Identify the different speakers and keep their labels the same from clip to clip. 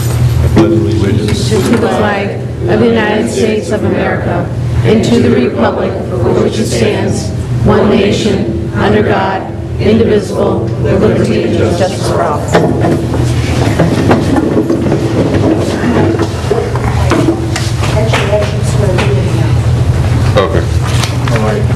Speaker 1: pledge allegiance
Speaker 2: to the flag of the United States of America and to the republic for which it stands, one nation, under God, indivisible, with liberty and justice for all.
Speaker 3: Actually, I can swear you in now.
Speaker 4: Okay.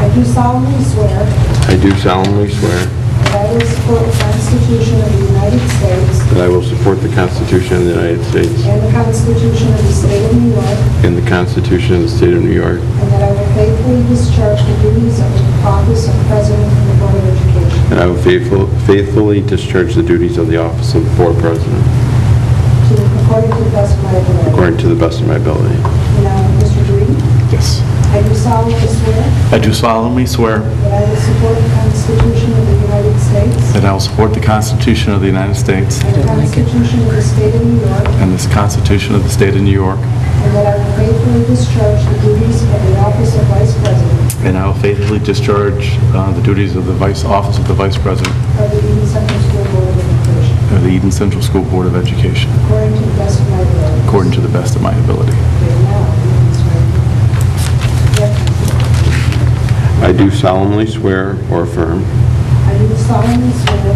Speaker 3: I do solemnly swear
Speaker 4: I do solemnly swear
Speaker 3: that I will support the Constitution of the United States
Speaker 4: that I will support the Constitution of the United States
Speaker 3: and the Constitution of the State of New York,
Speaker 4: and the Constitution of the State of New York,
Speaker 3: and that I will faithfully discharge the duties of the office of President of the Board of Education
Speaker 4: and I will faithful- faithfully discharge the duties of the office of Board President
Speaker 3: to the according to the best of my ability.
Speaker 4: according to the best of my ability.
Speaker 3: Now, Mr. Green,
Speaker 5: Yes.
Speaker 3: I do solemnly swear
Speaker 5: I do solemnly swear
Speaker 3: that I will support the Constitution of the United States
Speaker 5: that I will support the Constitution of the United States
Speaker 3: and the Constitution of the State of New York,
Speaker 5: and this Constitution of the State of New York,
Speaker 3: And that I will faithfully discharge the duties of the office of Vice President
Speaker 5: and I will faithfully discharge uh, the duties of the Vice, Office of the Vice President
Speaker 3: of the Eden Central School Board of Education,
Speaker 5: of the Eden Central School Board of Education,
Speaker 3: according to the best of my ability.
Speaker 5: according to the best of my ability.
Speaker 3: Okay, now, you can swear. Yep.
Speaker 4: I do solemnly swear or affirm
Speaker 3: I do solemnly swear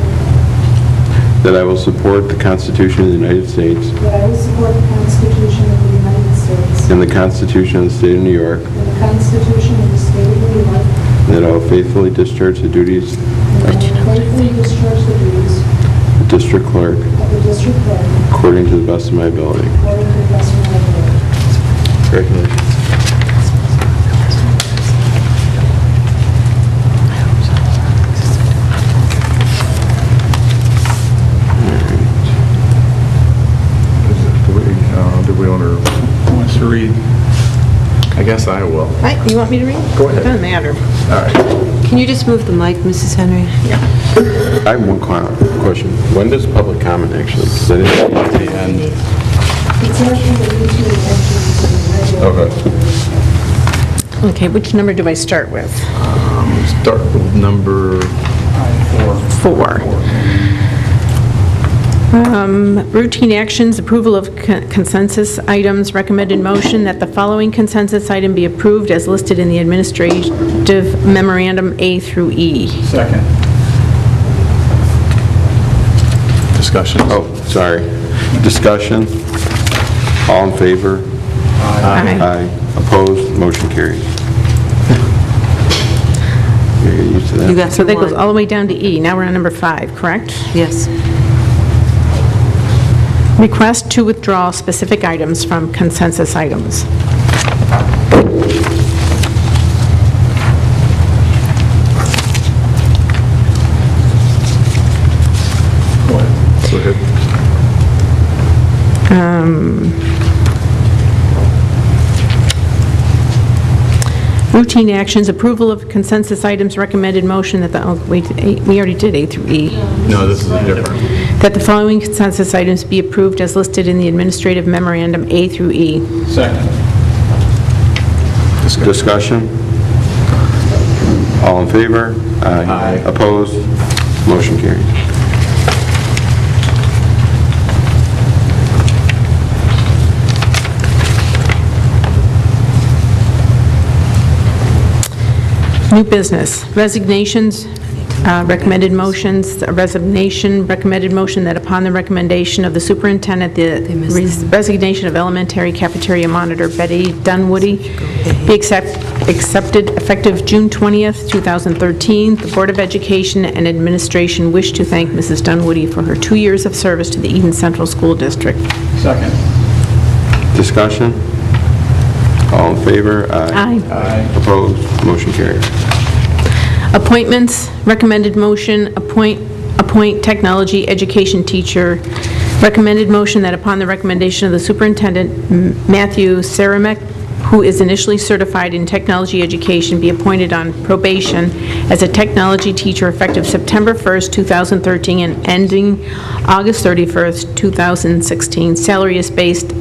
Speaker 4: that I will support the Constitution of the United States
Speaker 3: that I will support the Constitution of the United States
Speaker 4: and the Constitution of the State of New York,
Speaker 3: and the Constitution of the State of New York,
Speaker 4: and that I will faithfully discharge the duties
Speaker 3: and that I will faithfully discharge the duties
Speaker 4: of District Clerk
Speaker 3: of the district clerk
Speaker 4: according to the best of my ability.
Speaker 3: according to the best of my ability.
Speaker 4: Congratulations.
Speaker 5: Do we, uh, do we want to, who wants to read? I guess I will.
Speaker 6: Right, you want me to read?
Speaker 5: Go ahead.
Speaker 6: Doesn't matter.
Speaker 5: All right.
Speaker 6: Can you just move the mic, Mrs. Henry?
Speaker 4: I have one que- question. When does public comment actually? 'cause I didn't see it at the end.
Speaker 3: It's actually the issue of the regular.
Speaker 4: Okay.
Speaker 6: Okay, which number do I start with?
Speaker 5: um, Start with number
Speaker 6: Four. Um, Routine actions, approval of con- consensus items, recommended motion that the following consensus item be approved as listed in the administrative memorandum A through E.
Speaker 5: Second. Discussion.
Speaker 4: Oh, sorry. Discussion? All in favor?
Speaker 6: Aye.
Speaker 4: Aye. Opposed? Motion carries. You're used to that.
Speaker 7: You got
Speaker 6: So that
Speaker 7: through
Speaker 6: goes
Speaker 7: one.
Speaker 6: all the way down to E. Now we're on number five, correct?
Speaker 7: Yes.
Speaker 6: Request to withdraw specific items from consensus items.
Speaker 5: Go ahead. Go ahead.
Speaker 6: Um, Routine actions, approval of consensus items, recommended motion that the, oh, wait, A- we already did A through E,
Speaker 5: No, this is a different.
Speaker 6: that the following consensus items be approved as listed in the administrative memorandum A through E.
Speaker 4: Discussion? All in favor? Aye. Opposed? Motion carries.
Speaker 6: New business, resignations, uh, recommended motions, a resignation, recommended motion that upon the recommendation of the superintendent, the res- resignation of elementary cafeteria monitor Betty Dunwoody be accept- accepted effective June 20th, 2013. The Board of Education and Administration wish to thank Mrs. Dunwoody for her two years of service to the Eden Central School District.
Speaker 4: Discussion? All in favor?
Speaker 6: Aye.
Speaker 4: Opposed? Motion carries.
Speaker 6: Appointments, recommended motion, appoint, appoint technology education teacher. Recommended motion that upon the recommendation of the superintendent, M- Matthew Saramek, who is initially certified in technology education, be appointed on probation as a technology teacher effective September 1st, 2013, and ending August 31st, 2016. Salary is based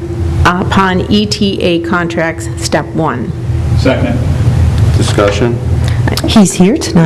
Speaker 6: upon E ETA contracts, step one.
Speaker 4: Discussion?
Speaker 7: He's here tonight.